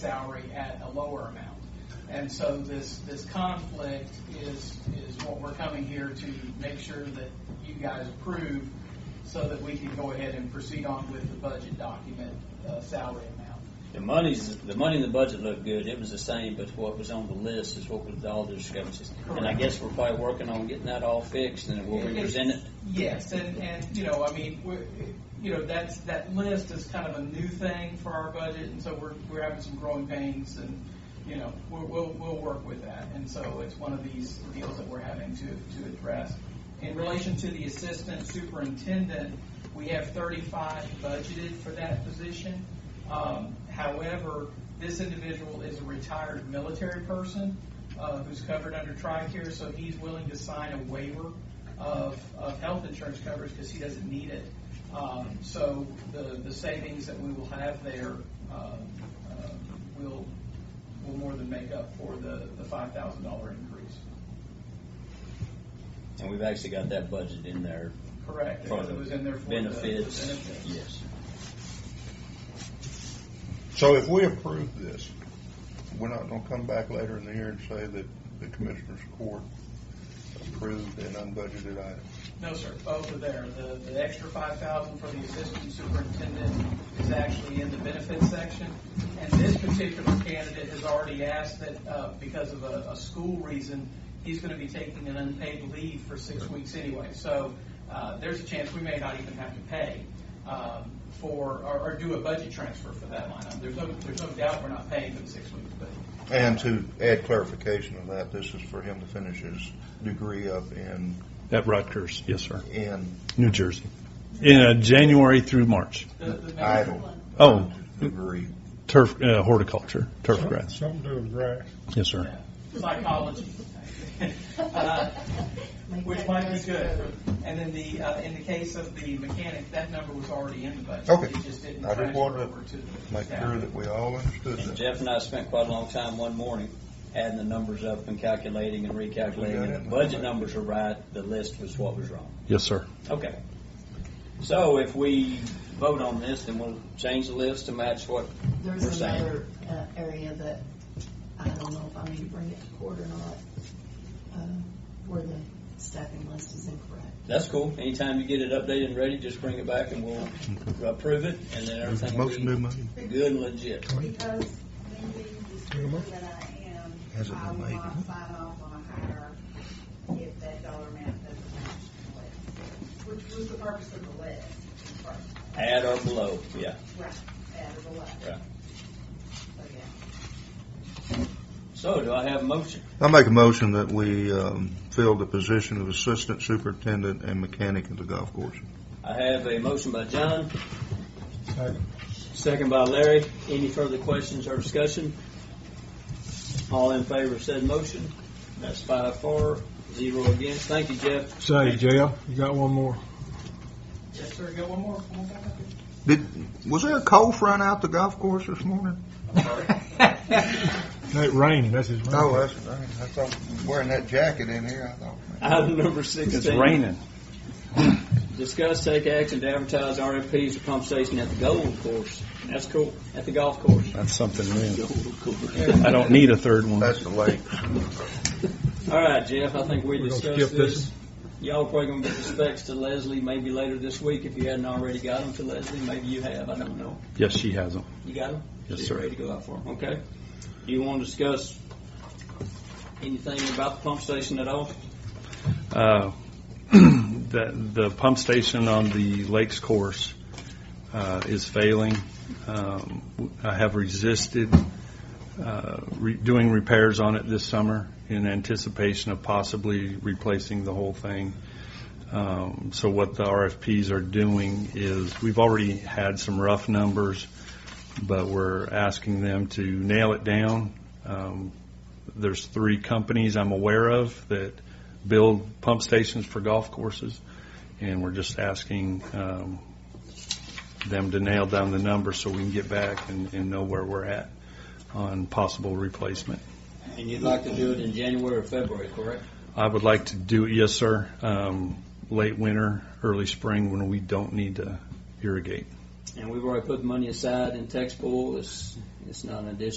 salary at a lower amount. And so this, this conflict is, is what we're coming here to make sure that you guys approve so that we can go ahead and proceed on with the budget document, uh, salary amount. The money's, the money in the budget looked good, it was the same, but what was on the list is what was all the discrepancies. And I guess we're probably working on getting that all fixed, and then we'll represent it. Yes, and, and, you know, I mean, we're, you know, that's, that list is kind of a new thing for our budget, and so we're, we're having some growing pains, and, you know, we'll, we'll, we'll work with that. And so it's one of these deals that we're having to, to address. In relation to the assistant superintendent, we have thirty-five budgeted for that position. Um, however, this individual is a retired military person, uh, who's covered under TRICARE, so he's willing to sign a waiver of, of health insurance coverage because he doesn't need it. Um, so the, the savings that we will have there, um, uh, will, will more than make up for the, the five thousand dollar increase. And we've actually got that budget in there Correct, for because it was in there the for the the benefits. benefits. Yes. So if we approve this, we're not gonna come back later in the year and say that the commissioner's court approved an unbudgeted item. No, sir, both are there. The, the extra five thousand for the assistant superintendent is actually in the benefits section. And this particular candidate has already asked that, uh, because of a, a school reason, he's gonna be taking an unpaid leave for six weeks anyway. So, uh, there's a chance we may not even have to pay, um, for, or, or do a budget transfer for that line item. There's no, there's no doubt we're not paying for the six weeks, but And to add clarification of that, this is for him to finish his degree up in, At Rutgers, yes, sir. in New Jersey. In uh, January through March. the, the. idle Oh, degree. turf, uh, horticulture, turf grass. Something to do with grass. Yes, sir. Psychology. Uh, Which might be good. And then the, uh, in the case of the mechanic, that number was already in the budget. Okay. It just didn't I just transfer wanted to over to the Make staff. sure that we all understood And that. Jeff and I spent quite a long time one morning adding the numbers up and calculating and recalculating. And the budget numbers are right, the list was what was wrong. Yes, sir. Okay. So if we vote on this, then we'll change the list to match what we're There's saying. another uh, area that, I don't know if I need to bring it to court or not, uh, where the staffing list is incorrect. That's cool. Anytime you get it updated and ready, just bring it back and we'll approve it and then everything will Motion to be move. good and legit. Because when being the school that I am, Has it been I will made? not sign off on a hire if that dollar amount doesn't match the list, which was the purpose of the list. first. Add or below, yeah. Right, add or below. Right. So, yeah. So do I have a motion? I make a motion that we, um, fill the position of assistant superintendent and mechanic at the golf course. I have a motion by John, Second. second by Larry. Any further questions or discussion? All in favor of said motion? That's five for, zero against. Thank you, Jeff. Say, Jeff, you got one more? Yes, sir, go one more, come on back up here. Did, was there a cold front out the golf course this morning? It rained, that's his. Oh, that's, I thought, wearing that jacket in here, I thought, Item number sixteen. It's raining. Discuss, take action to advertise RFPs for pump station at the golf course. That's cool. At the golf course. That's something new. Golf course. I don't need a third one. that's the lake. All right, Jeff, I think we We're gonna discussed skip this this. Y'all probably gonna get the specs to Leslie maybe later this week if you hadn't already got them to Leslie. Maybe you have, I don't know. Yes, she has them. You got them? Yes, sir. Ready to go out for them, okay. Do you wanna discuss anything about the pump station at all? Uh, the, the pump station on the lakes course uh, is failing. Um, I have resisted uh, re- doing repairs on it this summer in anticipation of possibly replacing the whole thing. Um, so what the RFPs are doing is we've already had some rough numbers, but we're asking them to nail it down. Um, there's three companies I'm aware of that build pump stations for golf courses, and we're just asking um, them to nail down the number so we can get back and, and know where we're at on possible replacement. And you'd like to do it in January or February, correct? I would like to do, yes, sir, um, late winter, early spring when we don't need to irrigate. And we've already put money aside in text pool. It's, it's not an addition.